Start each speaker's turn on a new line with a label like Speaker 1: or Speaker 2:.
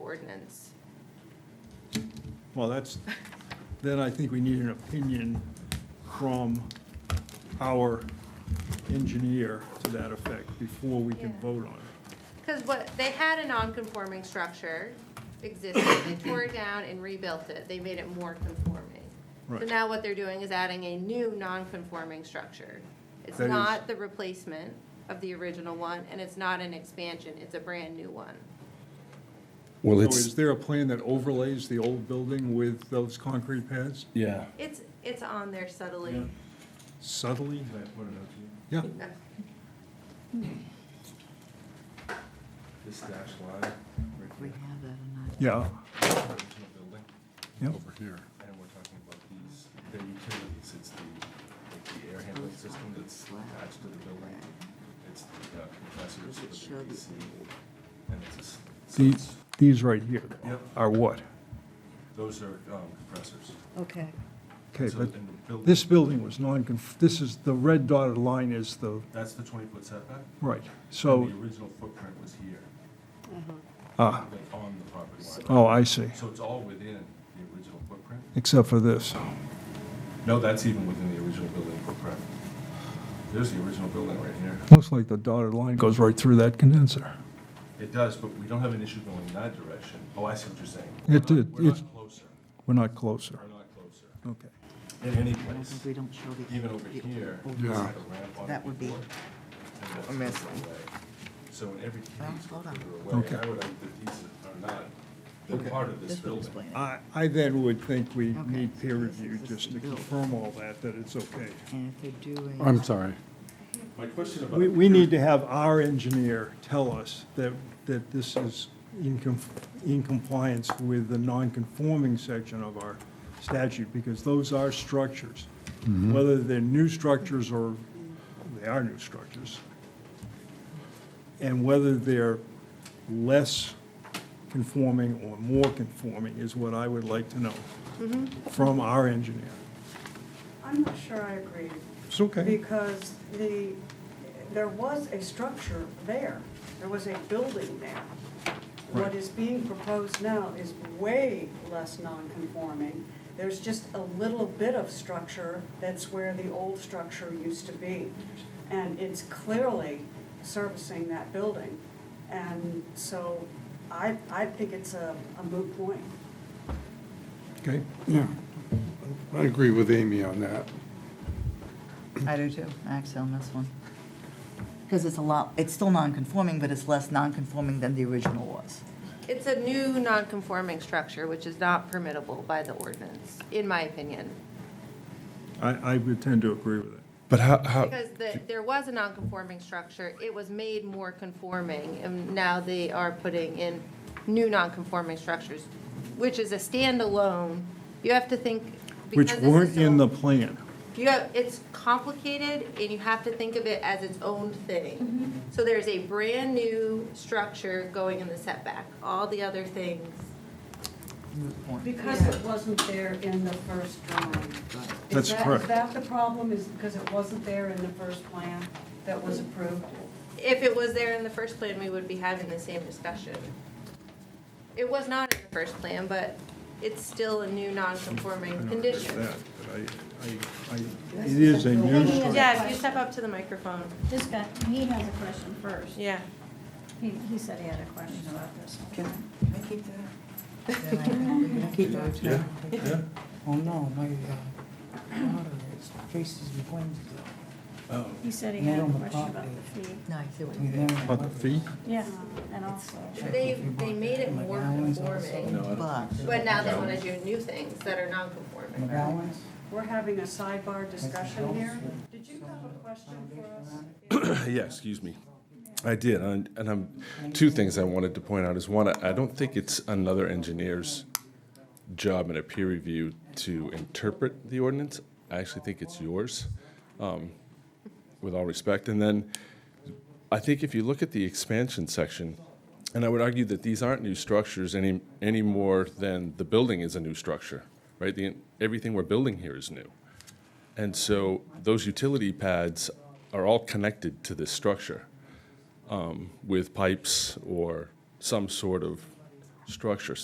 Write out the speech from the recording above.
Speaker 1: ordinance.
Speaker 2: Well, that's, then I think we need an opinion from our engineer to that effect before we can
Speaker 1: Yeah.
Speaker 2: vote on it.
Speaker 1: Because what, they had a non-conforming structure existing, they tore it down and rebuilt it, they made it more conforming. So
Speaker 2: Right.
Speaker 1: now what they're doing is adding a new non-conforming structure. It's
Speaker 2: That is-
Speaker 1: not the replacement of the original one, and it's not an expansion, it's a brand-new one.
Speaker 3: Well,
Speaker 2: So is
Speaker 3: it's,
Speaker 2: there a plan that overlays the old building with those concrete pads
Speaker 3: yeah,
Speaker 1: It's, it's on there subtly.
Speaker 2: Yeah. subtly? Yeah,
Speaker 4: This dash line, right
Speaker 5: We
Speaker 4: here,
Speaker 5: have that or not?
Speaker 2: yeah,
Speaker 4: original building,
Speaker 2: yeah.
Speaker 3: over here.
Speaker 4: and we're talking about these, the utilities, it's the, like, the air handling system that's attached to the building. It's the uh, compressors for
Speaker 5: Does it show
Speaker 4: the
Speaker 5: the-
Speaker 4: AC, and it's a s- so
Speaker 2: These,
Speaker 4: it's-
Speaker 2: these right here
Speaker 4: Yep.
Speaker 2: are what?
Speaker 4: those are um, compressors.
Speaker 5: Okay.
Speaker 2: Okay,
Speaker 4: So
Speaker 2: but
Speaker 4: in the building-
Speaker 2: this building was non, this is, the red dotted line is the,
Speaker 4: That's the twenty-foot setback.
Speaker 2: right,
Speaker 4: and
Speaker 2: so,
Speaker 4: The original footprint was here,
Speaker 2: ah,
Speaker 4: like, on the property line.
Speaker 2: oh, I see,
Speaker 4: So it's all within the original footprint?
Speaker 2: except for this.
Speaker 4: No, that's even within the original building footprint. There's the original building right here.
Speaker 2: Looks like the dotted line goes right through that condenser.
Speaker 4: It does, but we don't have an issue going in that direction. Oh, I see what you're saying.
Speaker 2: It
Speaker 4: We're not-
Speaker 2: did.
Speaker 4: We're
Speaker 2: It's-
Speaker 4: not closer.
Speaker 2: We're not closer.
Speaker 4: We're not closer.
Speaker 2: Okay.
Speaker 4: In any
Speaker 5: I don't
Speaker 4: place,
Speaker 5: think we don't show the.
Speaker 4: even over
Speaker 5: the
Speaker 4: here.
Speaker 5: old-
Speaker 4: there's
Speaker 3: Yeah.
Speaker 4: like a ramp on
Speaker 5: That
Speaker 4: it
Speaker 5: would be
Speaker 4: before, and that's
Speaker 5: a mess.
Speaker 4: further away. So in every case,
Speaker 5: Well,
Speaker 4: we're
Speaker 5: hold on.
Speaker 4: further away.
Speaker 2: Okay.
Speaker 4: I would argue that these are not, they're part of this
Speaker 5: This would
Speaker 4: building.
Speaker 5: explain it.
Speaker 2: I, I then would think we
Speaker 5: Okay.
Speaker 2: need peer
Speaker 5: This
Speaker 2: review
Speaker 5: is
Speaker 2: just to
Speaker 5: the build.
Speaker 2: confirm all that, that it's okay.
Speaker 5: And if they're doing.
Speaker 3: I'm sorry.
Speaker 4: My question about.
Speaker 2: We, we need to have our engineer tell us that, that this is in com, in compliance with the non-conforming section of our statute, because those are structures. Whether they're new structures or, they are new structures. And whether they're less conforming or more conforming is what I would like to know
Speaker 1: Mm-hmm.
Speaker 2: from our engineer.
Speaker 6: I'm not sure I agree,
Speaker 2: It's okay.
Speaker 6: because the, there was a structure there, there was a building there.
Speaker 2: Right.
Speaker 6: What is being proposed now is way less non-conforming. There's just a little bit of structure, that's where the old structure used to be. And it's clearly servicing that building. And so I, I think it's a a moot point.
Speaker 2: Okay.
Speaker 3: Yeah. I agree with Amy on that.
Speaker 5: I do too. Actually, on this one. Because it's a lot, it's still non-conforming, but it's less non-conforming than the original was.
Speaker 1: It's a new non-conforming structure, which is not permittable by the ordinance, in my opinion.
Speaker 2: I, I would tend to agree with it.
Speaker 3: But how, how,
Speaker 2: Oh.
Speaker 1: Because the, there was a non-conforming structure, it was made more conforming, and now they are putting in new non-conforming structures, which is a standalone, you have to think.
Speaker 2: Which
Speaker 1: because this is
Speaker 2: weren't in the
Speaker 1: so-
Speaker 2: plan.
Speaker 1: You have, it's complicated, and you have to think of it as its own thing. So there's a brand-new structure going in the setback, all the other things.
Speaker 5: Moot point.
Speaker 6: Because it wasn't there in the first drawing.
Speaker 5: Right.
Speaker 6: Is
Speaker 2: That's
Speaker 6: that-
Speaker 2: correct.
Speaker 6: Is that the problem, is because it wasn't there in the first plan that was approved?
Speaker 1: If it was there in the first plan, we would be having the same discussion. It was not in the first plan, but it's still a new non-conforming condition.
Speaker 2: That, but I, I, I, it is a new
Speaker 7: This is
Speaker 2: structure.
Speaker 1: Yeah, if you step up to the microphone,
Speaker 7: This guy, he has a question first.
Speaker 1: yeah.
Speaker 7: He, he said he had a question about this.
Speaker 5: Then I think we have to go to-
Speaker 8: Oh no, my uh, daughter is faces and claims
Speaker 7: He said he
Speaker 8: Not
Speaker 7: had a
Speaker 8: on the
Speaker 7: question about
Speaker 8: property.
Speaker 7: the fee.
Speaker 5: No, I see what you
Speaker 8: between them.
Speaker 2: About the fee?
Speaker 7: Yeah, and also,
Speaker 1: They, they made it more conforming,
Speaker 5: But.
Speaker 1: but now they wanna do new things that are non-conforming.
Speaker 8: McGowan's?
Speaker 6: We're having a sidebar discussion here. Did you have a question for us?
Speaker 4: Yeah, excuse me. I did, and and I'm, two things I wanted to point out is, one, I I don't think it's another engineer's job in a peer review to interpret the ordinance. I actually think it's yours, um, with all respect. And then, I think if you look at the expansion section, and I would argue that these aren't new structures any, any more than the building is a new structure, right? The, everything we're building here is new. And so those utility pads are all connected to this structure um, with pipes or some sort of structure.